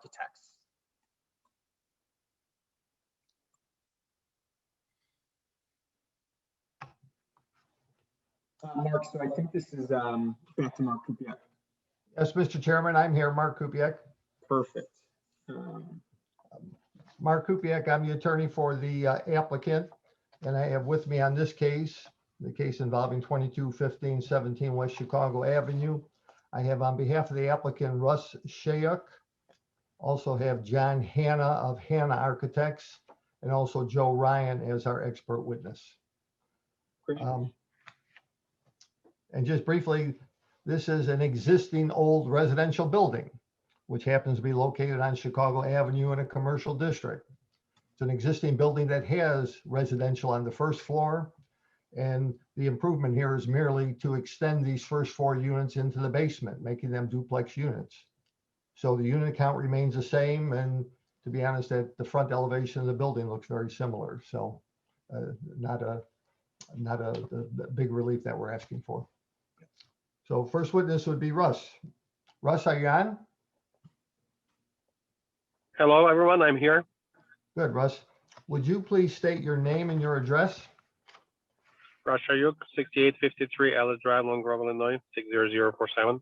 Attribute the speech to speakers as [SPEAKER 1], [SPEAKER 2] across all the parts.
[SPEAKER 1] architects. Uh, Mark, so I think this is um, back to Mark Kupiec.
[SPEAKER 2] Yes, Mr. Chairman, I'm here. Mark Kupiec.
[SPEAKER 1] Perfect. Um,
[SPEAKER 2] Mark Kupiec, I'm the attorney for the uh, applicant, and I have with me on this case, the case involving 221517 West Chicago Avenue. I have on behalf of the applicant Russ Shayuk, also have John Hanna of Hanna Architects, and also Joe Ryan as our expert witness.
[SPEAKER 1] great.
[SPEAKER 2] Um, And just briefly, this is an existing old residential building, which happens to be located on Chicago Avenue in a commercial district. It's an existing building that has residential on the first floor. And the improvement here is merely to extend these first four units into the basement, making them duplex units. So the unit count remains the same, and to be honest, that the front elevation of the building looks very similar, so uh, not a not a, the, the big relief that we're asking for. So first witness would be Russ. Russ, are you on?
[SPEAKER 3] Hello, everyone. I'm here.
[SPEAKER 2] Good, Russ. Would you please state your name and your address?
[SPEAKER 3] Rush Ayuk, 6853 Ellis Drive, Long Grove, Illinois, 60047.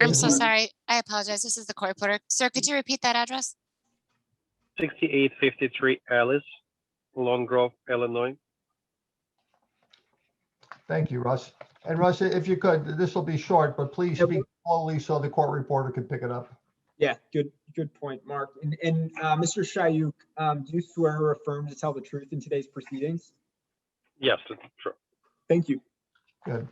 [SPEAKER 4] I'm
[SPEAKER 2] Is
[SPEAKER 4] so
[SPEAKER 2] it-
[SPEAKER 4] sorry. I apologize. This is the court reporter. Sir, could you repeat that address?
[SPEAKER 3] 6853 Ellis, Long Grove, Illinois.
[SPEAKER 2] Thank you, Russ. And Russ, if you could, this will be short, but please
[SPEAKER 1] Yep.
[SPEAKER 2] speak slowly so the court reporter can pick it up.
[SPEAKER 1] Yeah, good, good point, Mark. And, and uh, Mr. Shayuk, um, do you swear or affirm to tell the truth in today's proceedings?
[SPEAKER 3] Yes, that's true.
[SPEAKER 1] Thank you.
[SPEAKER 2] Good.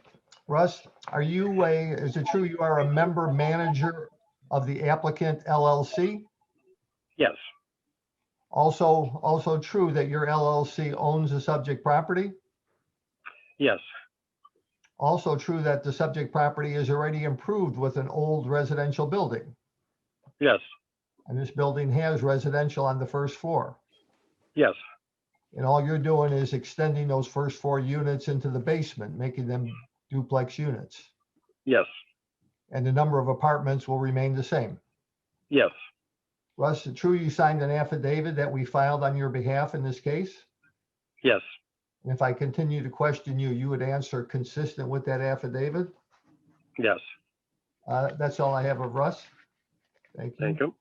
[SPEAKER 2] Russ, are you a, is it true you are a member manager of the applicant LLC?
[SPEAKER 3] Yes,
[SPEAKER 2] Also, also true that your LLC owns the subject property?
[SPEAKER 3] yes,
[SPEAKER 2] Also true that the subject property is already improved with an old residential building,
[SPEAKER 3] yes,
[SPEAKER 2] and this building has residential on the first floor.
[SPEAKER 3] yes,
[SPEAKER 2] And all you're doing is extending those first four units into the basement, making them duplex units.
[SPEAKER 3] yes,
[SPEAKER 2] And the number of apartments will remain the same.
[SPEAKER 3] yes,
[SPEAKER 2] Russ, is it true you signed an affidavit that we filed on your behalf in this case?
[SPEAKER 3] yes,
[SPEAKER 2] And if I continue to question you, you would answer consistent with that affidavit?
[SPEAKER 3] yes.
[SPEAKER 2] Uh, That's all I have of Russ. Thank you.
[SPEAKER 3] Thank you.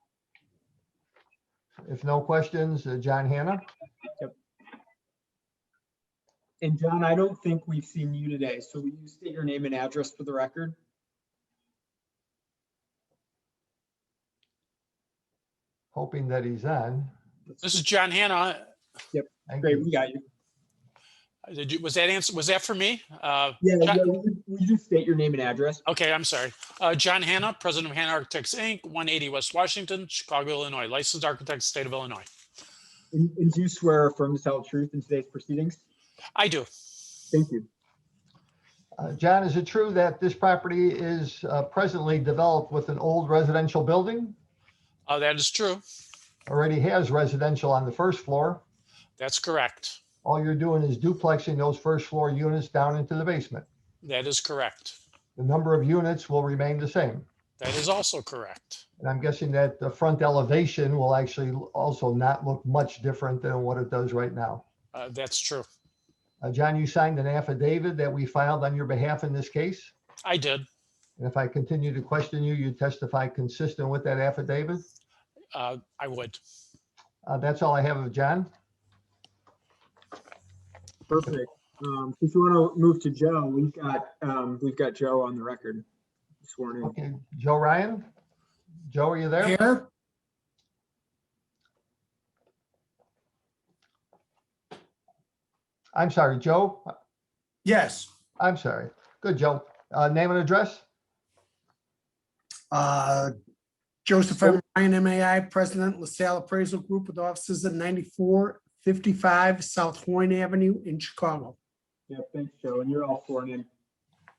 [SPEAKER 2] If no questions, uh, John Hannah?
[SPEAKER 1] And John, I don't think we've seen you today, so will you state your name and address for the record?
[SPEAKER 2] hoping that he's on.
[SPEAKER 5] This is John Hanna.
[SPEAKER 2] Thank
[SPEAKER 1] Great,
[SPEAKER 2] you.
[SPEAKER 1] we got you.
[SPEAKER 5] Did you, was that answer, was that for me? Uh,
[SPEAKER 1] Yeah,
[SPEAKER 5] John-
[SPEAKER 1] yeah, will you- will you just state your name and address?
[SPEAKER 5] Okay, I'm sorry. Uh, John Hanna, President of Hanna Architects, Inc., 180 West Washington, Chicago, Illinois, licensed architect, state of Illinois.
[SPEAKER 1] And and do you swear or affirm to tell the truth in today's proceedings?
[SPEAKER 5] I do.
[SPEAKER 1] Thank you.
[SPEAKER 2] Uh, John, is it true that this property is uh, presently developed with an old residential building?
[SPEAKER 5] Uh, That is true.
[SPEAKER 2] Already has residential on the first floor.
[SPEAKER 5] That's correct.
[SPEAKER 2] All you're doing is duplexing those first floor units down into the basement.
[SPEAKER 5] That is correct.
[SPEAKER 2] The number of units will remain the same.
[SPEAKER 5] That is also correct.
[SPEAKER 2] And I'm guessing that the front elevation will actually also not look much different than what it does right now.
[SPEAKER 5] Uh, That's true.
[SPEAKER 2] Uh, John, you signed an affidavit that we filed on your behalf in this case.
[SPEAKER 5] I did.
[SPEAKER 2] And if I continue to question you, you testify consistent with that affidavit?
[SPEAKER 5] Uh, I would.
[SPEAKER 2] Uh, That's all I have of John.
[SPEAKER 1] Perfect. Um, If you want to move to Joe, we've got, um, we've got Joe on the record sworn in.
[SPEAKER 2] Okay, Joe Ryan? Joe, are you there?
[SPEAKER 6] Here?
[SPEAKER 2] I'm sorry, Joe.
[SPEAKER 6] Yes.
[SPEAKER 2] I'm sorry. Good, Joe. Uh, name and address?
[SPEAKER 6] Uh, Joseph M. Ryan, MAI, President, LaSalle Appraisal Group with offices at 9455 South Horn Avenue in Chicago.
[SPEAKER 1] Yeah, thanks, Joe. And you're all sworn in.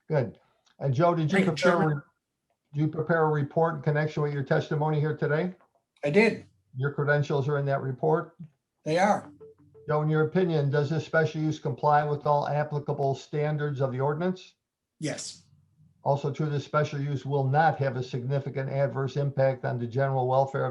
[SPEAKER 2] Good. And Joe, did you
[SPEAKER 6] Thank you,
[SPEAKER 2] prepare, a
[SPEAKER 6] Chairman.
[SPEAKER 2] re- do you prepare a report in connection with your testimony here today?
[SPEAKER 6] I did.
[SPEAKER 2] Your credentials are in that report.
[SPEAKER 6] They are.
[SPEAKER 2] Joe, in your opinion, does this special use comply with all applicable standards of the ordinance?
[SPEAKER 6] Yes.
[SPEAKER 2] Also true, this special use will not have a significant adverse impact on the general welfare